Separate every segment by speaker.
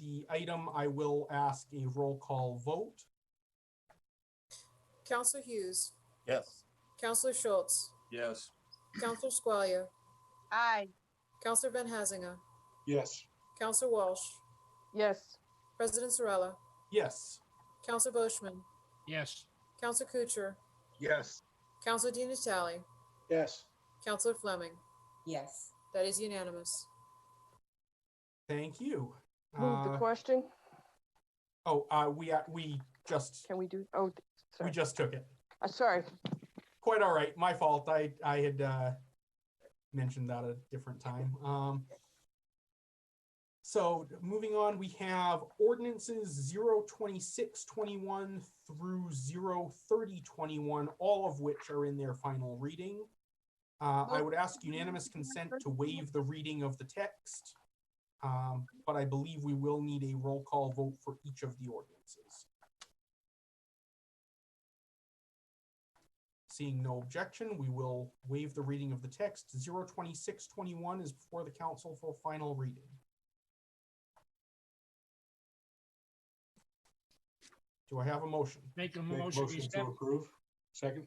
Speaker 1: the item, I will ask a roll call vote.
Speaker 2: Counselor Hughes,
Speaker 3: Yes.
Speaker 2: Counselor Schultz,
Speaker 3: Yes.
Speaker 2: Counselor Squalia,
Speaker 4: Aye.
Speaker 2: Counselor Van Hazinga,
Speaker 3: Yes.
Speaker 2: Counselor Walsh,
Speaker 4: Yes.
Speaker 2: President Zarella,
Speaker 1: Yes,
Speaker 2: Counselor Boishman,
Speaker 5: yes,
Speaker 2: Counselor Kucher,
Speaker 3: Yes.
Speaker 2: Counselor Dean Atali,
Speaker 3: Yes.
Speaker 2: Counselor Fleming.
Speaker 6: yes,
Speaker 2: That is unanimous.
Speaker 1: thank you.
Speaker 4: Move the
Speaker 1: Uh,
Speaker 4: question.
Speaker 1: Oh, uh, we, uh, we just,
Speaker 4: Can we do, oh, th-
Speaker 1: we
Speaker 4: sorry.
Speaker 1: just took it.
Speaker 4: Uh, sorry.
Speaker 1: Quite all right, my fault. I, I had, uh, mentioned that at a different time. Um, so moving on, we have ordinances zero twenty-six twenty-one through zero thirty twenty-one, all of which are in their final reading. Uh, I would ask unanimous consent to waive the reading of the text. Um, but I believe we will need a roll call vote for each of the ordinances. Seeing no objection, we will waive the reading of the text. 02621 is before the council for final reading. Do I have a motion?
Speaker 5: make a
Speaker 7: Make
Speaker 5: motion, we
Speaker 7: motion to
Speaker 5: accept,
Speaker 7: approve. Second?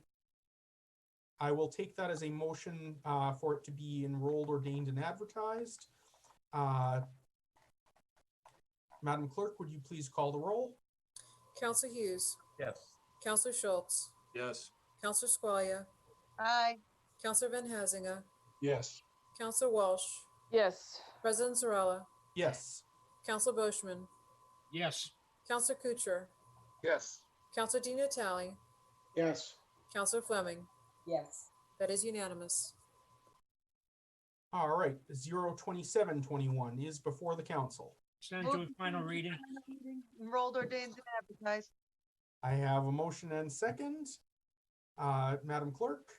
Speaker 1: I will take that as a motion uh, for it to be enrolled, ordained, and advertised. Uh, Madam Clerk, would you please call the roll?
Speaker 2: Counselor Hughes,
Speaker 3: Yes.
Speaker 2: Counselor Schultz,
Speaker 3: Yes.
Speaker 2: Counselor Squalia,
Speaker 4: Aye.
Speaker 2: Counselor Van Hazinga,
Speaker 7: Yes.
Speaker 2: Counselor Walsh,
Speaker 4: Yes.
Speaker 2: President Zarella,
Speaker 1: Yes,
Speaker 2: Counselor Boishman,
Speaker 5: yes,
Speaker 2: Counselor Kucher,
Speaker 3: Yes.
Speaker 2: Counselor Dean Atali,
Speaker 7: Yes.
Speaker 2: Counselor Fleming.
Speaker 6: yes.
Speaker 2: That is unanimous.
Speaker 1: all right. 02721 is before the council.
Speaker 5: send to a final reading,
Speaker 4: Enrolled, ordained, and advertised.
Speaker 1: I have a motion and second. Uh, Madam Clerk?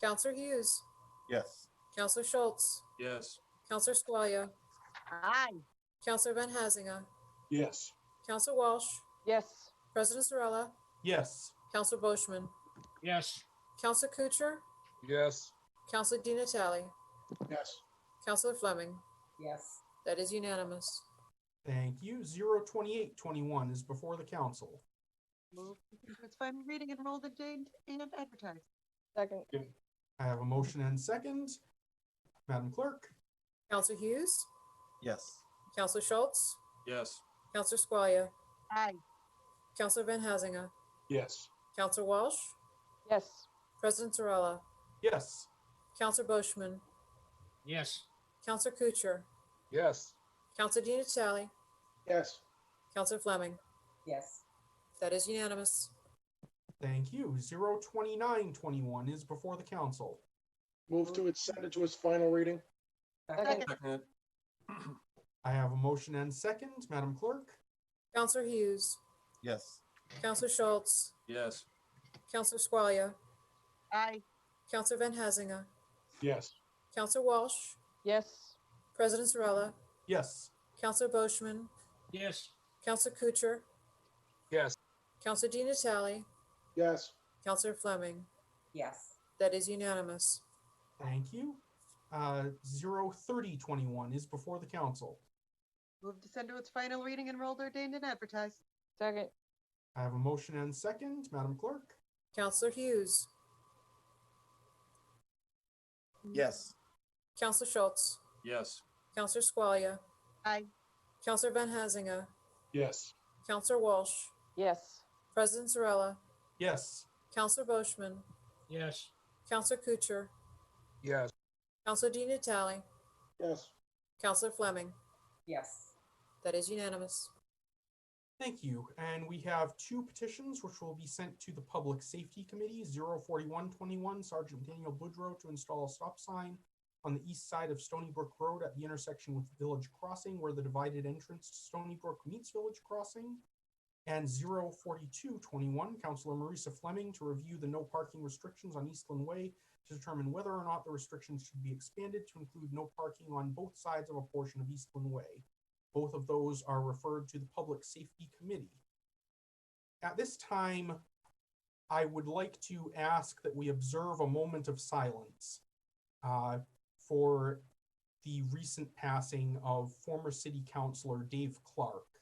Speaker 2: Counselor Hughes,
Speaker 3: Yes.
Speaker 2: Counselor Schultz,
Speaker 3: Yes.
Speaker 2: Counselor Squalia,
Speaker 4: Aye.
Speaker 2: Counselor Van Hazinga,
Speaker 7: Yes.
Speaker 2: Counselor Walsh,
Speaker 4: Yes.
Speaker 2: President Zarella,
Speaker 1: Yes,
Speaker 2: Counselor Boishman,
Speaker 5: yes,
Speaker 2: Counselor Kucher,
Speaker 3: Yes.
Speaker 2: Counselor Dean Atali,
Speaker 7: Yes.
Speaker 2: Counselor Fleming.
Speaker 6: Yes,
Speaker 2: That is unanimous.
Speaker 1: thank you. 02821 is before the council.
Speaker 4: Move to its final reading, enrolled, ordained, and advertised. Second.
Speaker 1: I have a motion and second. Madam Clerk?
Speaker 2: Counselor Hughes,
Speaker 3: Yes.
Speaker 2: Counselor Schultz,
Speaker 3: Yes.
Speaker 2: Counselor Squalia,
Speaker 4: Aye.
Speaker 2: Counselor Van Hazinga,
Speaker 7: Yes.
Speaker 2: Counselor Walsh,
Speaker 4: Yes.
Speaker 2: President Zarella,
Speaker 1: Yes,
Speaker 2: Counselor Boishman,
Speaker 5: yes,
Speaker 2: Counselor Kucher,
Speaker 3: Yes.
Speaker 2: Counselor Dean Atali,
Speaker 7: Yes.
Speaker 2: Counselor Fleming.
Speaker 6: yes,
Speaker 2: That is unanimous.
Speaker 1: thank you. 02921 is before the council.
Speaker 7: Move to its, send it to its final reading.
Speaker 6: second,
Speaker 3: Second.
Speaker 1: I have a motion and second. Madam Clerk?
Speaker 2: Counselor Hughes,
Speaker 3: Yes.
Speaker 2: Counselor Schultz,
Speaker 3: Yes.
Speaker 2: Counselor Squalia,
Speaker 4: Aye.
Speaker 2: Counselor Van Hazinga,
Speaker 7: Yes.
Speaker 2: Counselor Walsh,
Speaker 4: Yes.
Speaker 2: President Zarella,
Speaker 1: Yes,
Speaker 2: Counselor Boishman,
Speaker 5: yes,
Speaker 2: Counselor Kucher,
Speaker 3: Yes.
Speaker 2: Counselor Dean Atali,
Speaker 7: Yes.
Speaker 2: Counselor Fleming.
Speaker 6: yes,
Speaker 2: That is unanimous.
Speaker 1: thank you. Uh, 03021 is before the council.
Speaker 4: Move to send to its final reading, enrolled, ordained, and advertised. Second.
Speaker 1: I have a motion and second. Madam Clerk?
Speaker 2: Counselor Hughes,
Speaker 3: Yes.
Speaker 2: Counselor Schultz,
Speaker 3: Yes.
Speaker 2: Counselor Squalia,
Speaker 4: Aye.
Speaker 2: Counselor Van Hazinga,
Speaker 7: Yes.
Speaker 2: Counselor Walsh,
Speaker 4: Yes.
Speaker 2: President Zarella,
Speaker 1: Yes,
Speaker 2: Counselor Boishman,
Speaker 5: yes,
Speaker 2: Counselor Kucher,
Speaker 7: Yes.
Speaker 2: Counselor Dean Atali,
Speaker 7: Yes.
Speaker 2: Counselor Fleming.
Speaker 6: yes,
Speaker 2: That is unanimous.
Speaker 1: Thank you. And we have two petitions which will be sent to the Public Safety Committee, 04121 Sergeant Daniel Boudreau to install a stop sign on the east side of Stony Brook Road at the intersection with Village Crossing where the divided entrance to Stony Brook meets Village Crossing. And 04221 Councilor Marisa Fleming to review the no parking restrictions on Eastland Way to determine whether or not the restrictions should be expanded to include no parking on both sides of a portion of Eastland Way. Both of those are referred to the Public Safety Committee. At this time, I would like to ask that we observe a moment of silence uh, for the recent passing of former city councilor Dave Clark.